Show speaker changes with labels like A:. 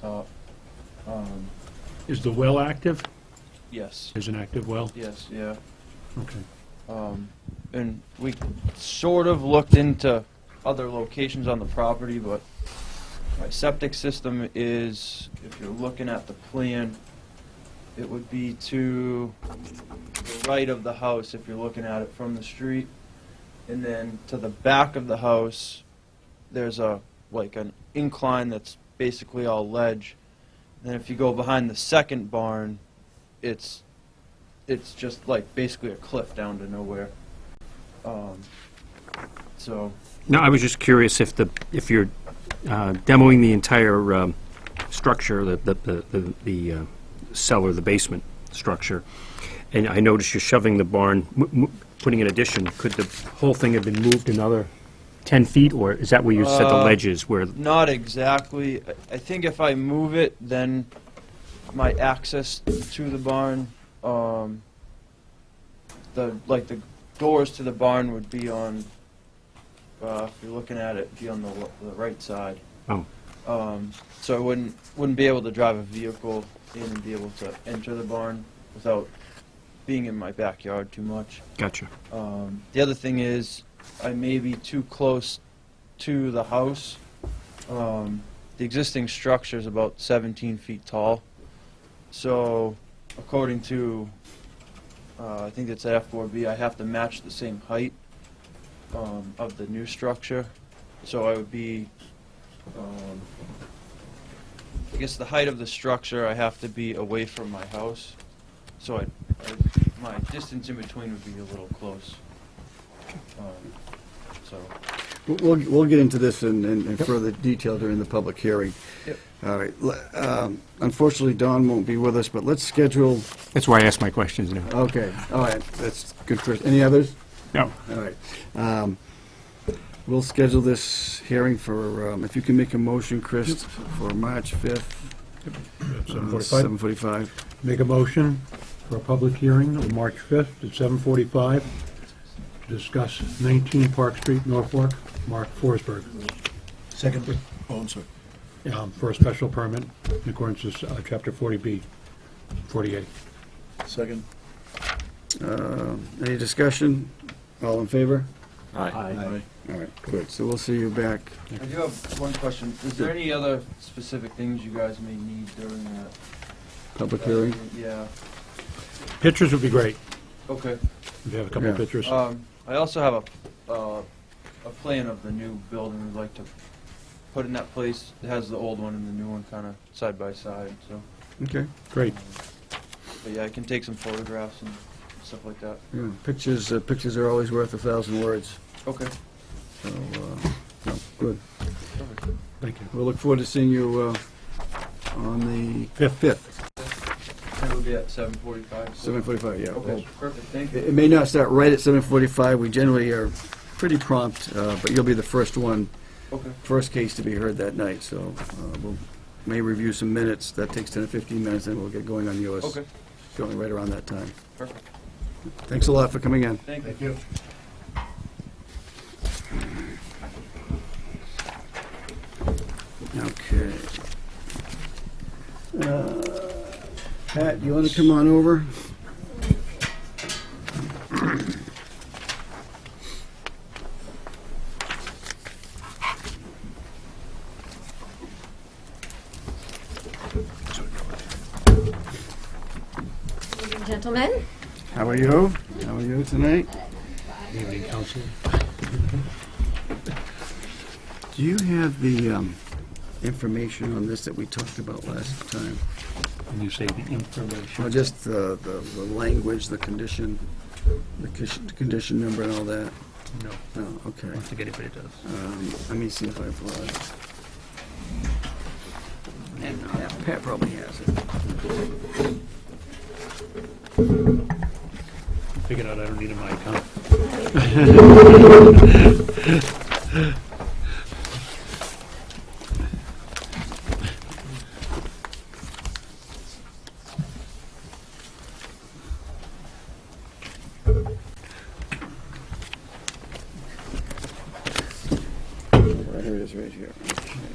A: top. Um,
B: Is the well active?
A: yes,
B: There's an active well?
A: yes, yeah.
B: Okay.
A: Um, and we sort of looked into other locations on the property, but my septic system is, if you're looking at the plan, it would be to the right of the house if you're looking at it from the street. And then to the back of the house, there's a, like an incline that's basically all ledge. Then if you go behind the second barn, it's it's just like basically a cliff down to nowhere. Um, so
C: No, I was just curious if the, if you're uh, demoing the entire um, structure, the, the- the, the- the uh, cellar, the basement structure, and I noticed you're shoving the barn, m- m- putting an addition, could the whole thing have been moved another 10 feet, or is that where you said the
A: Uh,
C: ledge is, where,
A: not exactly. I- I think if I move it, then my access to the barn, um, the like the doors to the barn would be on. Uh, if you're looking at it, be on the, l- the right side.
C: oh,
A: Um, so I wouldn't wouldn't be able to drive a vehicle in and be able to enter the barn without being in my backyard too much.
C: gotcha.
A: Um, the other thing is, I may be too close to the house. Um, the existing structure is about 17 feet tall. So, according to, uh, I think it's F4B, I have to match the same height um, of the new structure. So I would be, um, I guess the height of the structure, I have to be away from my house. So I, I- my distance in between would be a little close. Um, So,
D: We'll- We'll, we'll get into this in, in in further detail during the public hearing.
A: Yep.
D: All right, le- um, unfortunately, Don won't be with us, but let's schedule,
C: That's why I asked my questions now.
D: okay, all right, that's good, Chris. Any others?
C: No.
D: All right. Um, We'll schedule this hearing for, um, if you can make a motion, Chris, for March uh, 5th.
B: Seven forty-five.
D: 7:45.
B: Make a motion for a public hearing on March fifth at seven forty-five to discuss nineteen Park Street, Norfolk, Mark Forsberg. Second.
D: Oh, I'm sorry.
B: Um, for a special permit in accordance with uh, chapter forty B, forty-eight.
E: Second.
D: Um, Any discussion? All in favor?
E: Aye.
D: All right, good. So we'll see you back.
A: I do have one question. Is there any other specific things you guys may need during that?
D: Public hearing?
A: Yeah,
B: Pictures would be great,
A: okay.
B: if you have a couple of
D: Yeah.
B: pictures.
A: Um, I also have a, uh, a plan of the new building we'd like to put in that place. It has the old one and the new one kind of side by side, so. Um,
D: Okay.
B: Great.
A: But yeah, I can take some photographs and stuff like that.
D: Yeah, Pictures, uh, pictures are always worth a thousand words.
A: Okay.
D: So, uh, no, good.
B: Thank you.
D: We'll look forward to seeing you uh, on the
B: Fifth.
D: 5th,
A: It'll be at seven forty-five.
D: 7:45, yeah.
A: Okay, perfect, thank
D: It
A: you.
D: it may not start right at 7:45, we generally are pretty prompt, uh, but you'll be the first one,
A: Okay,
D: first case to be heard that night, so uh, we'll, may review some minutes, that takes 10 or 15 minutes, then we'll get going on yours.
A: okay,
D: Going right around that time.
A: perfect,
D: Thanks a lot for coming in.
A: thank you.
B: you.
D: Okay. Uh, Pat, you want to come on over?
F: Gentlemen,
D: How are you? How are you tonight?
B: Evening, council.
D: Do you have the um, information on this that we talked about last time?
B: And you say the information.
D: Or just the, the the language, the condition, the condition- condition number and all that?
B: No,
D: Oh, okay.
B: don't think anybody does.
D: Um, Let me see if I pull it. And uh, Pat probably has it.
B: Figured out I don't need it in my account.
D: Right here it is, right here. Okay.